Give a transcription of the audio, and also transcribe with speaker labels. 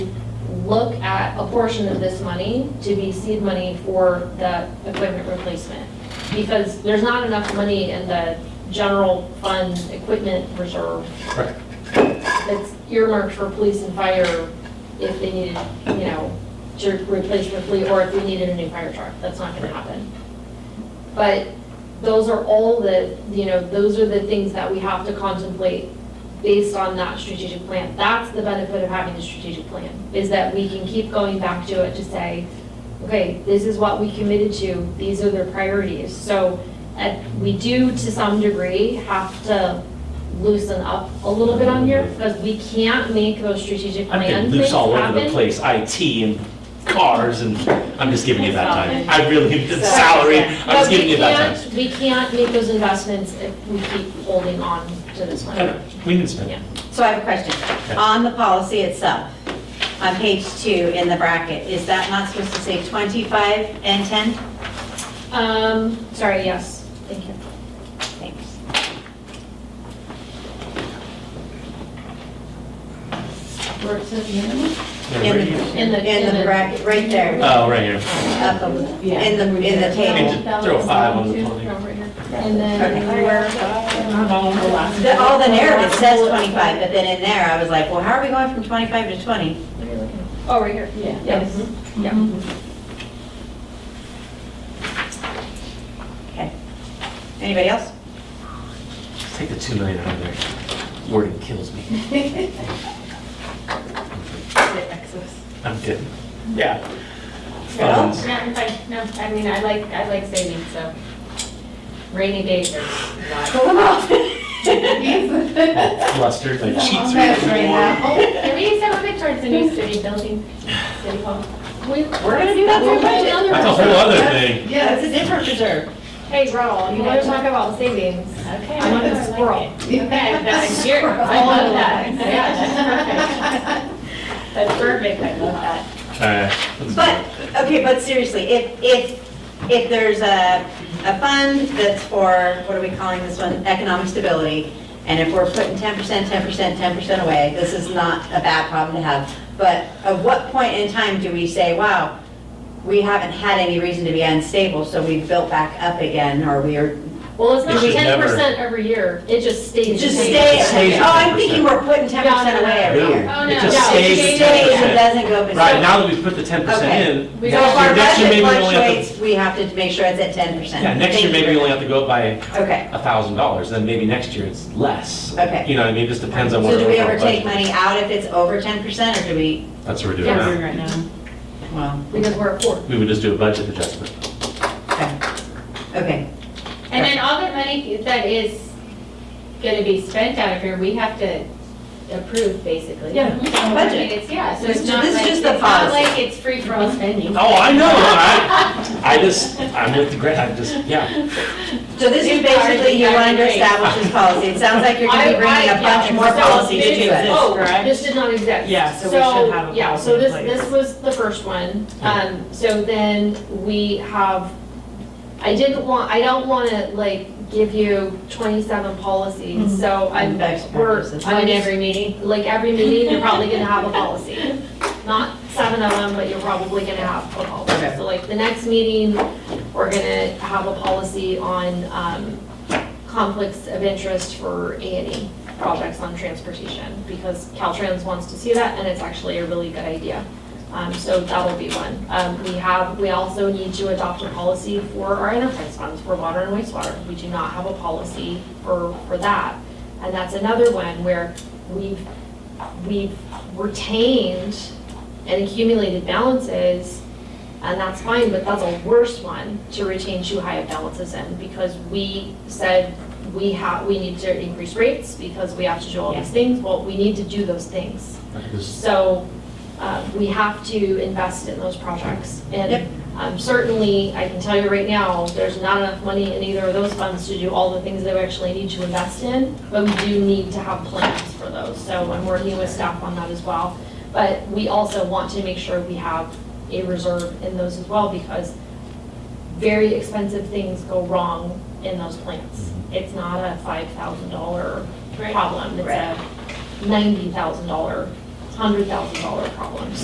Speaker 1: look at a portion of this money to be seed money for the equipment replacement. Because there's not enough money in the general fund equipment reserve
Speaker 2: Correct.
Speaker 1: that's earmarked for police and fire if they needed, you know, to replace their fleet, or if we needed a new fire truck, that's not gonna happen. But those are all the, you know, those are the things that we have to contemplate based on that strategic plan. That's the benefit of having the strategic plan, is that we can keep going back to it to say, okay, this is what we committed to, these are the priorities. So, uh, we do to some degree have to loosen up a little bit on here, because we can't make those strategic
Speaker 2: I'm
Speaker 1: plan
Speaker 2: getting
Speaker 1: things
Speaker 2: loose all over the
Speaker 1: happen.
Speaker 2: place, IT and cars, and I'm just giving you that time. I really, the
Speaker 3: Sorry.
Speaker 2: salary, I'm
Speaker 1: But
Speaker 2: just
Speaker 1: we
Speaker 2: giving you that time.
Speaker 1: can't- We can't make those investments if we keep holding on to this
Speaker 2: I know,
Speaker 1: one.
Speaker 2: We didn't spend.
Speaker 1: Yeah.
Speaker 3: So I have a question. On the policy itself, on page two in the bracket, is that not supposed to say 25 and 10?
Speaker 1: Um, sorry, yes, thank you.
Speaker 3: Thanks.
Speaker 4: Where it says minimum?
Speaker 2: Yeah, right
Speaker 3: In the-
Speaker 2: here.
Speaker 1: In the,
Speaker 3: In the bracket, right there,
Speaker 2: Oh, right here.
Speaker 3: up a- in the, in the table.
Speaker 2: And just throw a five on the twenty.
Speaker 1: And then
Speaker 3: Okay.
Speaker 1: where,
Speaker 3: The- All the narrative says 25, but then in there, I was like, well, how are we going from 25 to 20?
Speaker 1: oh, right here,
Speaker 4: Yeah.
Speaker 1: yes. Mm-hmm.
Speaker 3: Okay. Anybody else?
Speaker 2: Just Take the two million out of there. Wording kills me. I'm kidding. Yeah.
Speaker 3: Well,
Speaker 2: Funds.
Speaker 5: No, I'm fine. no, I mean, I like, I like savings, so rainy days are not.
Speaker 1: Oh,
Speaker 2: Flustered, my
Speaker 4: That's
Speaker 2: cheeks are.
Speaker 4: right now.
Speaker 5: Can we use some of it towards the new city building, city hall?
Speaker 1: We-
Speaker 3: We're gonna do that for a budget.
Speaker 2: That's a whole other thing.
Speaker 3: That's a
Speaker 4: Yes.
Speaker 3: different reserve.
Speaker 5: Hey, Raul, you wanna talk about savings? Okay. I'm on a squirrel. Okay, that's your, I love that. Yeah, that's perfect. That's perfect, I love that.
Speaker 2: Alright. let's do
Speaker 3: But,
Speaker 2: it.
Speaker 3: okay, but seriously, if, if, if there's a, a fund that's for, what are we calling this one, economic stability, and if we're putting ten percent, ten percent, ten percent away, this is not a bad problem to have. But at what point in time do we say, wow, we haven't had any reason to be unstable, so we built back up again, or we are,
Speaker 1: Well, it's
Speaker 2: It
Speaker 1: not
Speaker 2: should
Speaker 1: ten
Speaker 2: never-
Speaker 1: percent every year, it just stays.
Speaker 3: just
Speaker 1: the same.
Speaker 3: stay,
Speaker 2: stays at
Speaker 3: oh, I'm thinking
Speaker 2: 10%.
Speaker 3: we're putting ten percent away every
Speaker 2: No,
Speaker 3: year.
Speaker 5: Oh,
Speaker 2: It
Speaker 5: no.
Speaker 2: just
Speaker 1: No,
Speaker 2: stays
Speaker 1: it
Speaker 2: at
Speaker 3: Stays and
Speaker 2: 10%.
Speaker 3: doesn't go. but
Speaker 2: Right,
Speaker 3: so-
Speaker 2: now that we've put the ten percent
Speaker 3: Okay.
Speaker 2: in,
Speaker 5: We
Speaker 3: So
Speaker 2: next
Speaker 3: if our
Speaker 2: year, next year
Speaker 3: budget
Speaker 2: maybe we only have to,
Speaker 3: fluctuates, we have to make sure it's at ten percent.
Speaker 2: yeah, next year maybe we only have to go up by
Speaker 3: Okay.
Speaker 2: a thousand dollars, then maybe next year it's less.
Speaker 3: Okay.
Speaker 2: You know what I mean, it just depends on what.
Speaker 3: So do
Speaker 2: our
Speaker 3: we
Speaker 2: overall
Speaker 3: ever take
Speaker 2: budget-
Speaker 3: money out if it's over ten percent, or do we,
Speaker 2: That's what we're doing
Speaker 1: Yes.
Speaker 2: now.
Speaker 4: Right now.
Speaker 3: well,
Speaker 1: Because we're at four.
Speaker 2: We would just do a budget adjustment.
Speaker 3: okay. Okay,
Speaker 5: And then all the money that is gonna be spent out of here, we have to approve, basically.
Speaker 2: Yeah.
Speaker 1: Oh,
Speaker 5: I mean,
Speaker 3: Budget.
Speaker 5: it's- Yeah, so
Speaker 3: This-
Speaker 5: it's not
Speaker 3: this is
Speaker 5: like,
Speaker 3: just
Speaker 5: it's
Speaker 3: the
Speaker 5: not
Speaker 3: policy.
Speaker 5: like it's free for all spending.
Speaker 2: Oh, I know, I, I just, I'm with the grant, I just, yeah.
Speaker 3: so this is
Speaker 5: New cars,
Speaker 3: basically you
Speaker 5: new
Speaker 3: wanted to
Speaker 5: cars.
Speaker 3: establish this policy, it sounds like you're gonna be
Speaker 1: I-
Speaker 3: bringing
Speaker 1: I-
Speaker 3: a bunch
Speaker 1: yeah,
Speaker 3: more
Speaker 1: so
Speaker 3: policies
Speaker 1: this-
Speaker 3: to us.
Speaker 1: Oh,
Speaker 4: correct?
Speaker 1: this did not exist.
Speaker 4: Yeah, so we should have a
Speaker 1: Yeah, so
Speaker 4: policy
Speaker 1: this,
Speaker 4: in place.
Speaker 1: this was the first one. Um, so then we have, I didn't want, I don't want to like give you twenty-seven policies, so I'm,
Speaker 3: Best
Speaker 1: we're,
Speaker 3: practices.
Speaker 1: I'm in every meeting, like every meeting, you're probably gonna have a policy. Not seven of them, but you're probably gonna have a policy.
Speaker 3: Okay.
Speaker 1: So like the next meeting, we're gonna have a policy on, um, conflicts of interest for A and E projects on transportation, because Caltrans wants to see that, and it's actually a really good idea. Um, so that'll be one. Um, we have, we also need to adopt a policy for our enterprise funds for water and wastewater. We do not have a policy for, for that. And that's another one where we've, we've retained and accumulated balances, and that's fine, but that's a worse one to retain too high of balances in, because we said we have, we need to increase rates because we have to do all these things, well, we need to do those things. So uh, we have to invest in those projects.
Speaker 3: Yep.
Speaker 1: And um, certainly, I can tell you right now, there's not enough money in either of those funds to do all the things that we actually need to invest in, but we do need to have plans for those. So I'm working with staff on that as well. But we also want to make sure we have a reserve in those as well because very expensive things go wrong in those plants. It's not a $5,000 problem. It's
Speaker 3: Right.
Speaker 1: a $90,000, $100,000 problem.